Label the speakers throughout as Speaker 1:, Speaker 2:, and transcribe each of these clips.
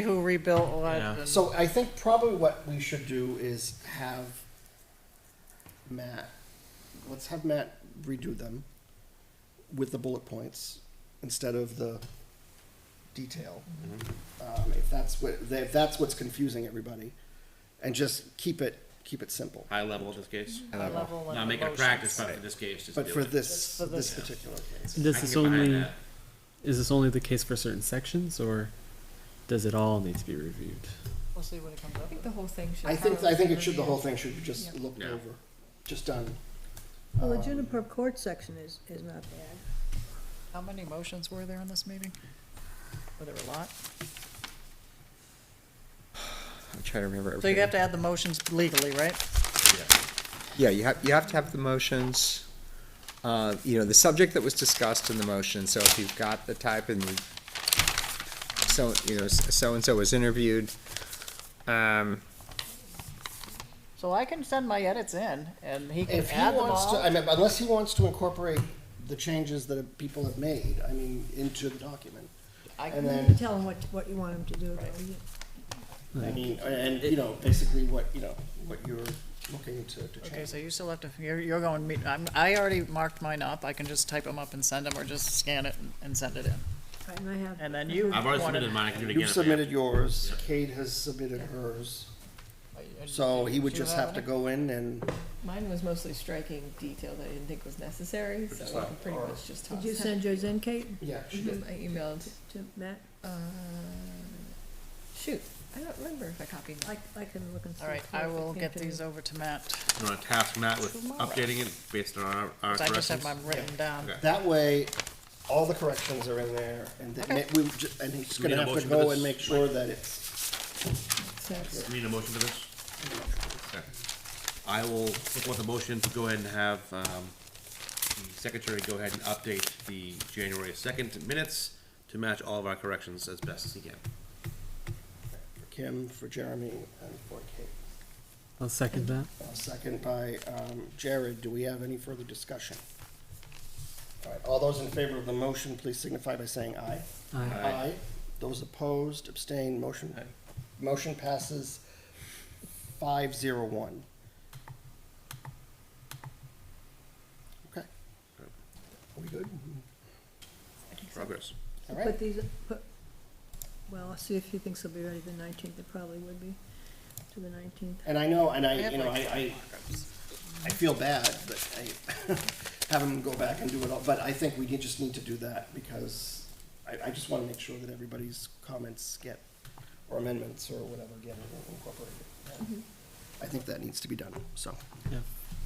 Speaker 1: who rebuilt a lot.
Speaker 2: Yeah.
Speaker 1: and-
Speaker 3: So I think probably what we should do is have Matt, let's have Matt redo them with the bullet points instead of the detail.
Speaker 2: Mm-hmm.
Speaker 3: Um, if that's what, if that's what's confusing everybody, and just keep it, keep it simple.
Speaker 2: high level in this case.
Speaker 1: High level and
Speaker 2: Not making a
Speaker 1: emotions.
Speaker 2: practice, but for this case, just
Speaker 3: But
Speaker 2: do
Speaker 3: for
Speaker 2: it.
Speaker 3: this,
Speaker 1: Just for
Speaker 3: this
Speaker 1: this.
Speaker 3: particular case.
Speaker 2: I
Speaker 4: This
Speaker 2: can
Speaker 4: is
Speaker 2: get behind
Speaker 4: only
Speaker 2: that.
Speaker 4: is this only the case for certain sections, or does it all need to be reviewed?
Speaker 1: We'll see what it comes
Speaker 5: I
Speaker 1: up with.
Speaker 5: think the whole thing should.
Speaker 3: I think, I
Speaker 5: probably
Speaker 3: think
Speaker 5: be
Speaker 3: it should, the
Speaker 5: reviewed.
Speaker 3: whole thing should be just
Speaker 5: Yeah.
Speaker 3: looked
Speaker 2: Yeah.
Speaker 3: over, just done.
Speaker 6: Well, the
Speaker 3: Um,
Speaker 6: Juniper Court section is, is not bad.
Speaker 1: How many motions were there in this meeting? Were there a lot?
Speaker 7: I'm trying to remember
Speaker 1: So
Speaker 7: everything.
Speaker 1: you have to add the motions legally, right?
Speaker 7: Yeah, you have, you have to have the motions, uh, you know, the subject that was discussed in the motion, so if you've got the type and the, so, you know, s- so-and-so was interviewed, um,
Speaker 1: So I can send my edits in and he can
Speaker 3: If he
Speaker 1: add them
Speaker 3: wants to, I
Speaker 1: all.
Speaker 3: mean, unless he wants to incorporate the changes that people have made, I mean, into the document.
Speaker 1: I
Speaker 3: And
Speaker 1: can-
Speaker 6: You
Speaker 3: then,
Speaker 6: tell them what, what you want them to do, though. You-
Speaker 3: I mean, and, you know, basically what, you know, what you're looking to, to
Speaker 1: Okay,
Speaker 3: change.
Speaker 1: so you still have to, you're, you're going, meet- I'm, I already marked mine up. I can just type them up and send them or just scan it and- and send it in.
Speaker 6: And I have.
Speaker 1: And then you-
Speaker 2: I've already
Speaker 1: Wanted-
Speaker 2: submitted mine. I can do it again.
Speaker 3: You've
Speaker 2: if I have
Speaker 3: submitted
Speaker 2: to.
Speaker 3: yours, Kate has submitted hers, so he would
Speaker 1: Do you
Speaker 3: just have to
Speaker 1: any?
Speaker 3: go in and,
Speaker 5: Mine was mostly striking detail that I didn't think was necessary, so I can pretty much just toss
Speaker 6: Did
Speaker 5: it.
Speaker 6: you send yours in, Kate,
Speaker 3: yeah, she did.
Speaker 5: Mhm, I emailed,
Speaker 6: to Matt?
Speaker 5: uh, shoot, I don't remember if I copied.
Speaker 6: I, I can look and see.
Speaker 1: All right, I will get these
Speaker 6: over.
Speaker 1: over to Matt.
Speaker 2: You want to task Matt with
Speaker 1: Tomorrow.
Speaker 2: updating it based on our, our
Speaker 1: 'cause I just have
Speaker 2: corrections?
Speaker 1: mine written down.
Speaker 2: Okay.
Speaker 3: That way, all the corrections are in there, and then,
Speaker 1: Okay.
Speaker 3: ma- we, ju- and he's
Speaker 2: Do we
Speaker 3: gonna
Speaker 2: need a
Speaker 3: have
Speaker 2: motion
Speaker 3: to
Speaker 2: for
Speaker 3: go and
Speaker 2: this?
Speaker 3: make sure that it's,
Speaker 5: So,
Speaker 2: Need a motion for this? Okay. I will, with a motion to go ahead and have, um, the secretary go ahead and update the January second minutes to match all of our corrections as best as he can.
Speaker 3: for Kim, for Jeremy, and for Kate.
Speaker 4: I'll second that.
Speaker 3: Uh, Second by um, Jared. Do we have any further discussion? All right, all those in favor of the motion, please signify by saying aye.
Speaker 4: Aye.
Speaker 2: Aye.
Speaker 3: Those opposed, abstained, motion, motion passes five zero one. Okay. Are we good?
Speaker 2: Progress.
Speaker 3: All
Speaker 6: Put
Speaker 3: right.
Speaker 6: these, put, well, I'll see if he thinks they'll be ready the nineteenth, they probably would be, to the nineteenth.
Speaker 3: And I know, and I,
Speaker 1: have
Speaker 3: you know, I,
Speaker 1: like
Speaker 3: I, I feel bad, but I have them go back and do it all, but I think we did- just need to do that because I, I just wanna make sure that everybody's comments get, or amendments or whatever, get incorporated. I think that needs to be done, so.
Speaker 4: Yeah.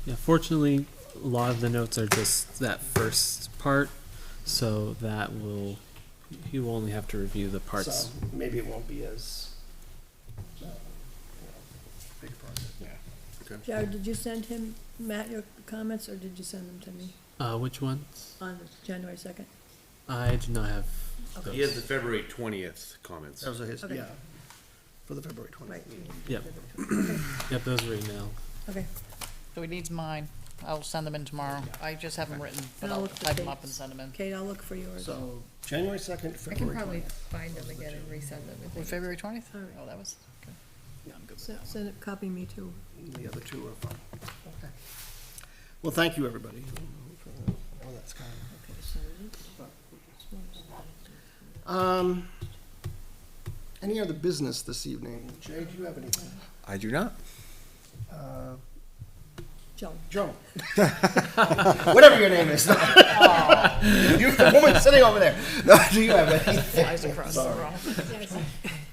Speaker 4: Yeah. Fortunately, a lot of the notes are just that first part, so that will he will only have to review the parts.
Speaker 3: so Maybe it won't be as, uh, you know, big a project. Yeah.
Speaker 6: Jared, did you send him, Matt, your comments, or did you send them to me
Speaker 4: Uh, which ones?
Speaker 6: on January second?
Speaker 4: I do not have.
Speaker 2: He has the February twentieth comments.
Speaker 3: Those are his,
Speaker 6: Okay.
Speaker 3: yeah, for the February twentieth
Speaker 6: Right.
Speaker 3: meeting.
Speaker 4: Yep. Yep. Those were emailed.
Speaker 6: Okay,
Speaker 1: So he needs mine. I'll send them in tomorrow. I just have them written, but
Speaker 6: And I'll
Speaker 1: I'll
Speaker 6: look for
Speaker 1: type them up and
Speaker 6: dates.
Speaker 1: send them in.
Speaker 6: Kate, I'll look for yours. All
Speaker 3: So, January second,
Speaker 5: I can
Speaker 3: February
Speaker 5: probably
Speaker 3: twentieth.
Speaker 5: find them again and resend them. if
Speaker 1: Well,
Speaker 5: they-
Speaker 1: February twentieth?
Speaker 6: right,
Speaker 1: Oh, that was, okay. Yeah, I'm good with
Speaker 6: send,
Speaker 1: that.
Speaker 6: send it, copy me too.
Speaker 3: The other two are fine. Okay. Well, thank you, everybody. Oh, that's kind of-
Speaker 6: Okay, so it's-
Speaker 3: Um, any other business this evening? Jay, do you have anything?
Speaker 7: I do not.
Speaker 3: Uh,
Speaker 6: Joan.
Speaker 3: Joan? Whatever your name is. Oh. You, the woman sitting over there. No, do you have anything?
Speaker 1: Eyes across the room.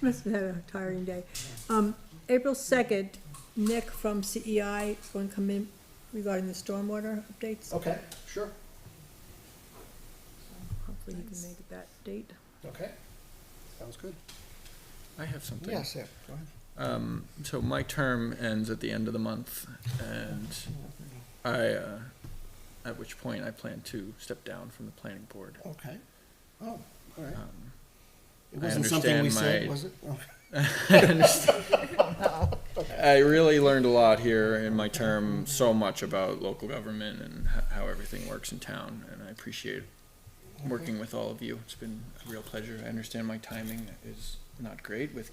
Speaker 6: Must have had a tiring day. Um, April second, Nick from CEI is going to come in regarding the stormwater updates.
Speaker 3: Okay, sure,
Speaker 6: Hopefully he can make that date.
Speaker 3: okay. Sounds good.
Speaker 8: I have something.
Speaker 3: Yes, yeah, go ahead.
Speaker 8: Um, so my term ends at the end of the month, and I, uh, at which point I plan to step down from the planning board.
Speaker 3: Okay. Oh, all right.
Speaker 8: Um,
Speaker 3: It
Speaker 8: I
Speaker 3: wasn't something we
Speaker 8: understand
Speaker 3: said,
Speaker 8: my-
Speaker 3: was it? Oh,
Speaker 8: I really learned a lot here in my term, so much about local government and h- how everything works in town, and I appreciate working with all of you. It's been a real pleasure. I understand my timing is not great with